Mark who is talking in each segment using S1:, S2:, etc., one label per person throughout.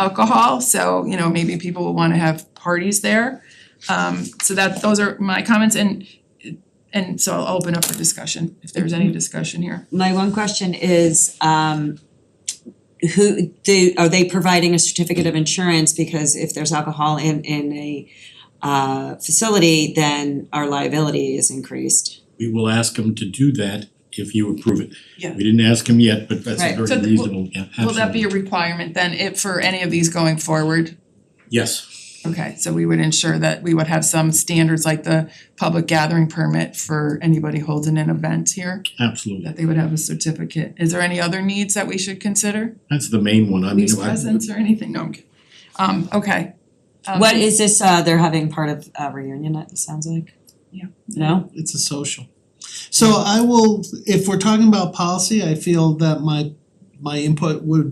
S1: alcohol, so you know, maybe people will wanna have parties there. Um so that those are my comments and and so I'll open up for discussion if there's any discussion here.
S2: My one question is um who do are they providing a certificate of insurance because if there's alcohol in in a uh facility, then our liability is increased.
S3: we will ask him to do that if you approve it.
S1: Yeah.
S3: We didn't ask him yet, but that's
S2: Right.
S3: a
S1: So
S3: very
S1: th- will-
S3: reasonable, yeah, absolutely.
S1: Will that be a requirement then if for any of these going forward?
S3: Yes,
S1: Okay, so we would ensure that we would have some standards like the public gathering permit for anybody holding an event here,
S3: absolutely.
S1: that they would have a certificate. Is there any other needs that we should consider?
S3: That's the main one. I mean,
S1: These
S3: I-
S1: presents or anything? No, I'm kidding. Um okay. Um,
S2: What is this uh they're having part of uh reunion, it sounds like?
S1: Yeah.
S2: No?
S4: it's a social. So I will, if we're talking about policy, I feel that my my input would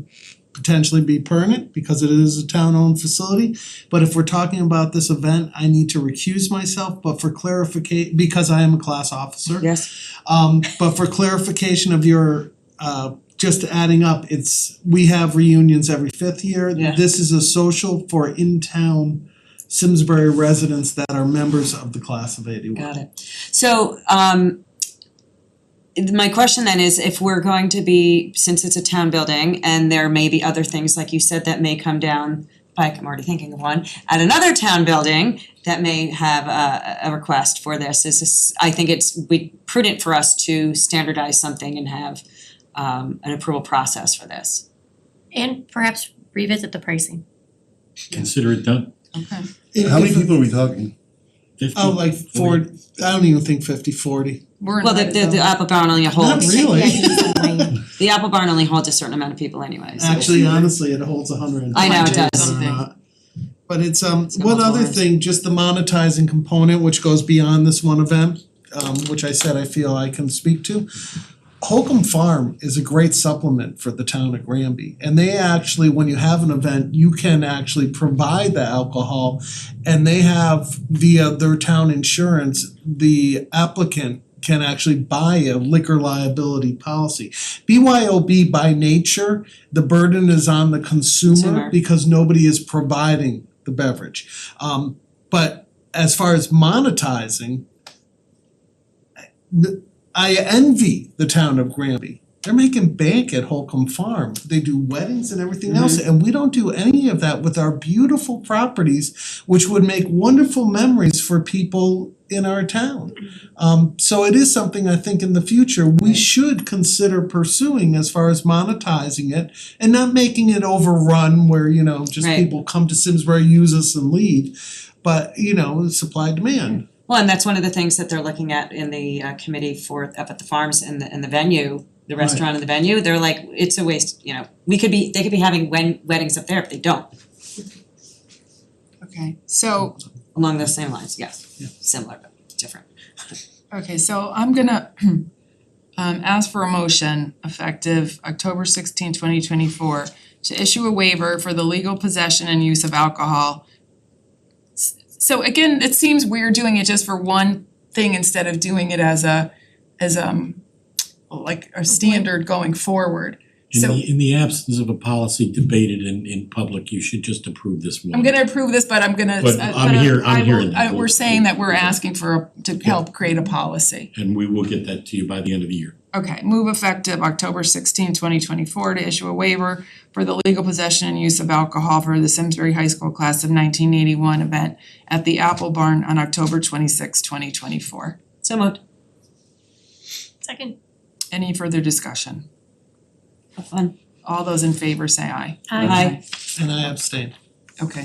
S4: potentially be pertinent because it is a town owned facility. But if we're talking about this event, I need to recuse myself, but for clarification, because I am a class officer.
S2: Yes,
S4: Um but for clarification of your uh just adding up, it's we have reunions every fifth year.
S2: Yeah.
S4: This is a social for in-town Simsbury residents that are members of the class of eighty one.
S2: got it. So um my question then is if we're going to be, since it's a town building and there may be other things like you said that may come down pike, I'm already thinking of one, at another town building that may have a a request for this, is this, I think it's we prudent for us to standardize something and have um an approval process for this.
S5: And perhaps revisit the pricing.
S3: consider it done.
S1: Okay.
S6: How many people are we talking?
S3: Fifty.
S4: Oh, like four, I don't even think fifty, forty.
S1: We're
S2: Well, the
S1: invited
S2: the the uh,
S1: though.
S2: Apple Barn only
S4: Not
S2: holds,
S4: really.
S2: the Apple Barn only holds a certain amount of people anyway, so-
S4: Actually, honestly, it holds a hundred and
S2: I
S4: twenty,
S2: know, it
S4: believe it
S2: does.
S4: or
S1: Something.
S4: not. But it's um,
S2: got
S4: one other
S2: multiple rooms.
S4: thing, just the monetizing component, which goes beyond this one event, um, which I said I feel I can speak to. Holcomb Farm is a great supplement for the town of Granby, and they actually, when you have an event, you can actually provide the alcohol. And they have via their town insurance, the applicant can actually buy a liquor liability policy. BYOB by nature, the burden is on the
S2: Consumer.
S4: consumer because nobody is providing the beverage. Um but as far as monetizing, n- I envy the town of Granby. They're making bank at Holcomb Farm. They do weddings and everything else, and we don't do any of that with our beautiful properties, which would make wonderful memories for people in our town. Um so it is something I think in the future we
S2: Right.
S4: should consider pursuing as far as monetizing it and not making it overrun where, you know, just
S2: Right.
S4: people come to Simsbury, use us and leave. But, you know, supply demand.
S2: Well, and that's one of the things that they're looking at in the uh committee for up at the farms and the and the venue, the
S4: Right.
S2: restaurant and the venue, they're like, it's a waste, you know, we could be, they could be having wen- weddings up there, but they don't,
S1: Okay, so
S2: along those same lines, yes.
S4: Yeah.
S2: Similar but different.
S1: Okay, so I'm gonna um ask for a motion effective October 16, 2024, to issue a waiver for the legal possession and use of alcohol. S- So again, it seems weird doing it just for one thing instead of doing it as a as um like a standard going forward.
S3: In
S1: So-
S3: the in the absence of a policy debated in in public, you should just approve this one.
S1: I'm gonna approve this, but I'm gonna
S3: But
S1: uh,
S3: I'm
S1: but I-
S3: here- I'm
S1: I
S3: here
S1: will-
S3: in that.
S1: I- we're saying that we're asking for a to help create a policy.
S3: And we will get that to you by the end of the year.
S1: Okay, move effective October 16, 2024, to issue a waiver for the legal possession and use of alcohol for the Simsbury High School Class of 1981 event at the Apple Barn on October 26, 2024.
S2: So moved,
S5: Second.
S1: Any further discussion?
S2: have fun.
S1: All those in favor say aye.
S2: Aye.
S4: And I abstain.
S1: Okay,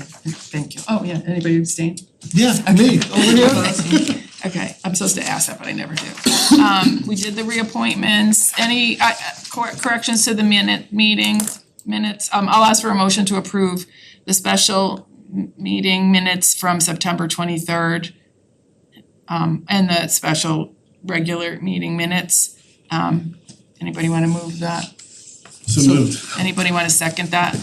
S1: thank you. Oh, yeah, anybody abstain?
S4: Yeah, me, over here.
S1: Okay, I'm supposed to ask that, but I never do. Um, we did the reappointments, any uh uh, cor- corrections to the minute meeting minutes? Um, I'll ask for a motion to approve the special m- meeting minutes from September twenty-third. Um, and the special regular meeting minutes. Um, anybody wanna move that?
S6: So moved.
S1: Anybody wanna second that?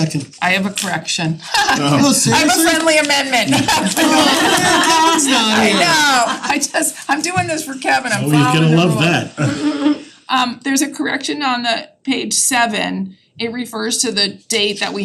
S4: Second.
S1: I have a correction.
S4: Oh,
S1: I have a
S4: seriously?
S1: friendly amendment.
S4: Kevin's not here.
S1: No, I just, I'm doing this for Kevin, I'm
S3: Oh,
S1: following
S3: he's gonna
S1: the
S3: love
S1: rules.
S3: that.
S1: Um, there's a correction on the page seven. It refers to the date that we